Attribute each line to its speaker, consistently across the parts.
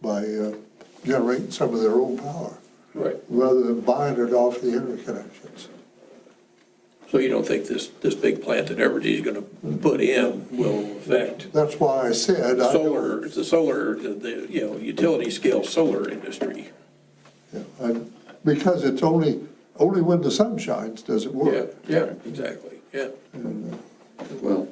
Speaker 1: by uh, generating some of their own power,
Speaker 2: Right.
Speaker 1: rather than buying it off the interconnections.
Speaker 2: So you don't think this, this big plant that Evergy's gonna put in will affect
Speaker 1: That's why I said, I don't,
Speaker 2: solar, the solar, the- the, you know, utility scale solar industry?
Speaker 1: yeah, I- because it's only, only when the sun shines does it
Speaker 2: Yeah,
Speaker 1: work.
Speaker 2: yeah, exactly, yeah.
Speaker 3: Well,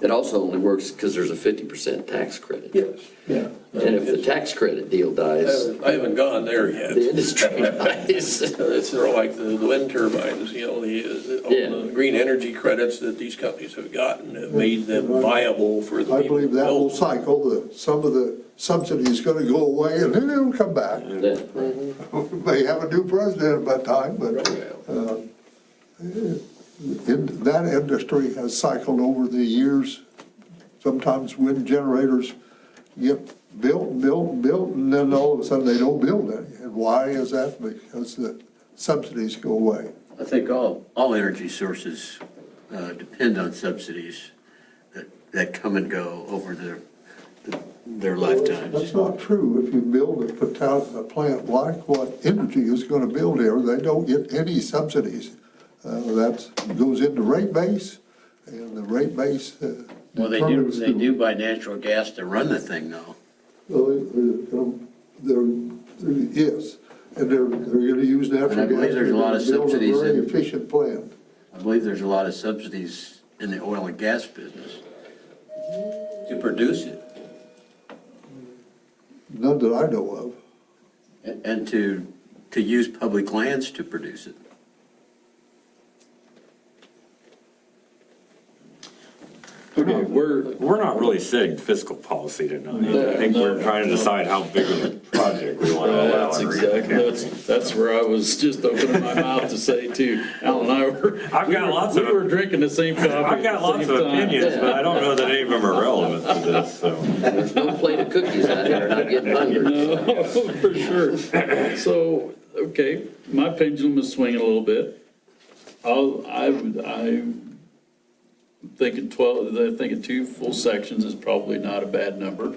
Speaker 3: it also only works because there's a fifty percent tax credit.
Speaker 2: Yes.
Speaker 1: Yeah.
Speaker 3: And if the tax credit deal dies,
Speaker 2: I haven't gone there
Speaker 3: the
Speaker 2: yet.
Speaker 3: industry dies.
Speaker 2: It's sort of like the the wind turbines, you know, the, uh, all
Speaker 3: Yeah.
Speaker 2: the green energy credits that these companies have gotten have made them viable for the
Speaker 1: I
Speaker 2: people.
Speaker 1: believe
Speaker 2: who
Speaker 1: that whole
Speaker 2: built.
Speaker 1: cycle, that some of the subsidy is gonna go away and then it'll come back.
Speaker 3: That-
Speaker 1: They have a new president by that time, but in- that industry has cycled over the years. Sometimes wind generators get built, and built, and built, and then all of a sudden they don't build any. And why is that? Because the subsidies go away.
Speaker 4: I think all, all energy sources uh, depend on subsidies that, that come and go over their, their
Speaker 1: That's
Speaker 4: lifetimes.
Speaker 1: not true. If you build a pota- a plant like what Energy is gonna build here, they don't get any subsidies. Uh, that goes into rate base, and the rate base uh,
Speaker 4: Well, they do,
Speaker 1: determines
Speaker 4: they
Speaker 1: the-
Speaker 4: do buy natural gas to run the thing though.
Speaker 1: Well, it- it, um, There, there is, and they're, they're gonna use natural gas.
Speaker 4: And I believe there's a lot of
Speaker 1: to build
Speaker 4: subsidies
Speaker 1: Very
Speaker 4: in-
Speaker 1: efficient plant.
Speaker 4: I believe there's a lot of subsidies in the oil and gas business to produce it
Speaker 1: none that I know of.
Speaker 4: and and to, to use public lands to produce it.
Speaker 5: Okay,
Speaker 2: We're,
Speaker 5: We're not really setting fiscal policy tonight. I think we're trying to decide how big of a project we want to allow.
Speaker 6: That's
Speaker 5: and
Speaker 6: exactly,
Speaker 5: reallocate.
Speaker 6: that's, that's where I was just opening my mouth to say too. Al and I were.
Speaker 5: I've
Speaker 6: we
Speaker 5: got
Speaker 6: were-
Speaker 5: lots of-
Speaker 6: We were drinking the same coffee.
Speaker 5: I've
Speaker 6: at
Speaker 5: got
Speaker 6: the
Speaker 5: lots
Speaker 6: same
Speaker 5: of
Speaker 6: time.
Speaker 5: opinions, but I don't know that any of them are relevant to this, so.
Speaker 3: There's no plate of cookies out here, not getting hungry.
Speaker 6: No, For sure. So, okay, my pendulum is swinging a little bit. I'll, I, would- I'm thinking 12, I'm thinking two full sections is probably not a bad number.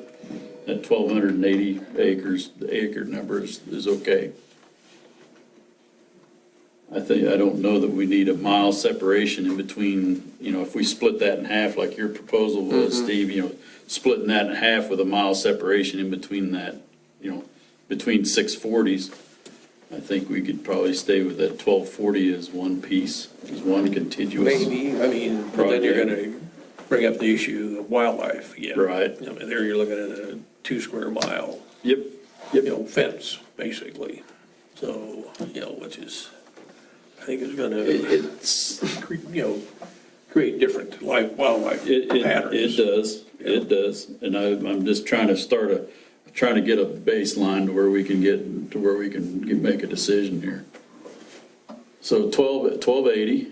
Speaker 6: That 1,280 acres, the acre number is, is okay. I think, I don't know that we need a mile separation in between, you know, if we split that in half like your proposal was, Steve, you know, splitting that in half with a mile separation in between that, you know, between six forties, I think we could probably stay with that twelve forty as one piece, as one contiguous.
Speaker 2: Maybe, I mean, but then you're gonna bring up the issue of wildlife again.
Speaker 6: Right.
Speaker 2: I mean, there you're looking at a two square mile,
Speaker 6: Yep,
Speaker 2: you know, fence, basically. So, you know, which is, I think is
Speaker 6: it,
Speaker 2: gonna,
Speaker 6: it's,
Speaker 2: cre- you know, create different life, wildlife
Speaker 6: It, it, it
Speaker 2: patterns.
Speaker 6: does, it does, and I, I'm just trying to start a, trying to get a baseline to where we can get, to where we can get- make a decision here. So twelve, twelve eighty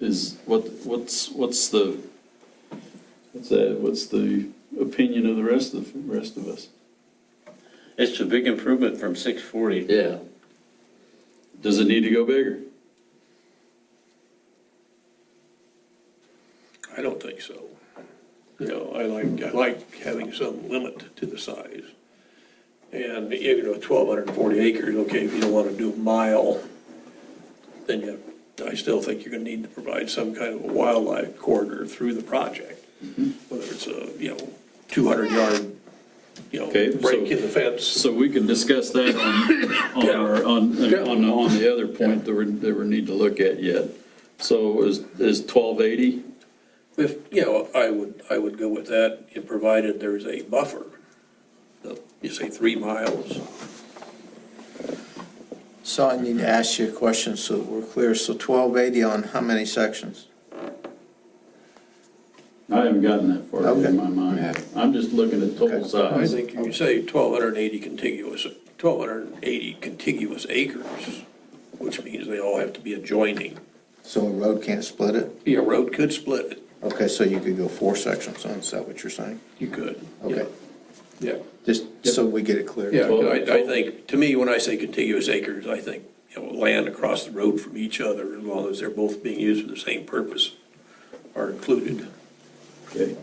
Speaker 6: is, what, what's, what's the, what's that, what's the opinion of the rest of, rest of us?
Speaker 7: It's a big improvement from 640.
Speaker 3: Yeah,
Speaker 6: Does it need to go bigger?
Speaker 2: I don't think so. You know, I like, I like having some limit to the size. And, you know, twelve hundred and forty acres, okay, if you don't wanna do a mile, then you, I still think you're gonna need to provide some kind of a wildlife corridor through the project.
Speaker 6: Mm-hmm.
Speaker 2: Whether it's a, you know, two hundred yard, you know,
Speaker 6: Okay, so-
Speaker 2: break in the fence.
Speaker 6: So we can discuss that on, on, our- on, on, on the other point that we're, that we need to look at yet. So is, is twelve eighty?
Speaker 2: If, you know, I would, I would go with that, if provided there's a buffer. You say three miles,
Speaker 8: So I need to ask you a question so that we're clear. So twelve eighty on how many sections?
Speaker 6: I haven't gotten that far
Speaker 8: Okay.
Speaker 6: in my mind. I'm just looking at total
Speaker 2: I
Speaker 6: size.
Speaker 2: think you say twelve hundred and eighty contiguous, twelve hundred and eighty contiguous acres, which means they all have to be adjoining.
Speaker 8: So a road can't split it?
Speaker 2: Your road could split it.
Speaker 8: Okay, so you could go four sections on, is that what you're saying?
Speaker 2: You could.
Speaker 8: Okay,
Speaker 2: Yeah.
Speaker 8: just so we get it clear.
Speaker 2: Yeah, I, I think, to me, when I say contiguous acres, I think, you know, land across the road from each other, as long as they're both being used for the same purpose, are included.
Speaker 6: Okay.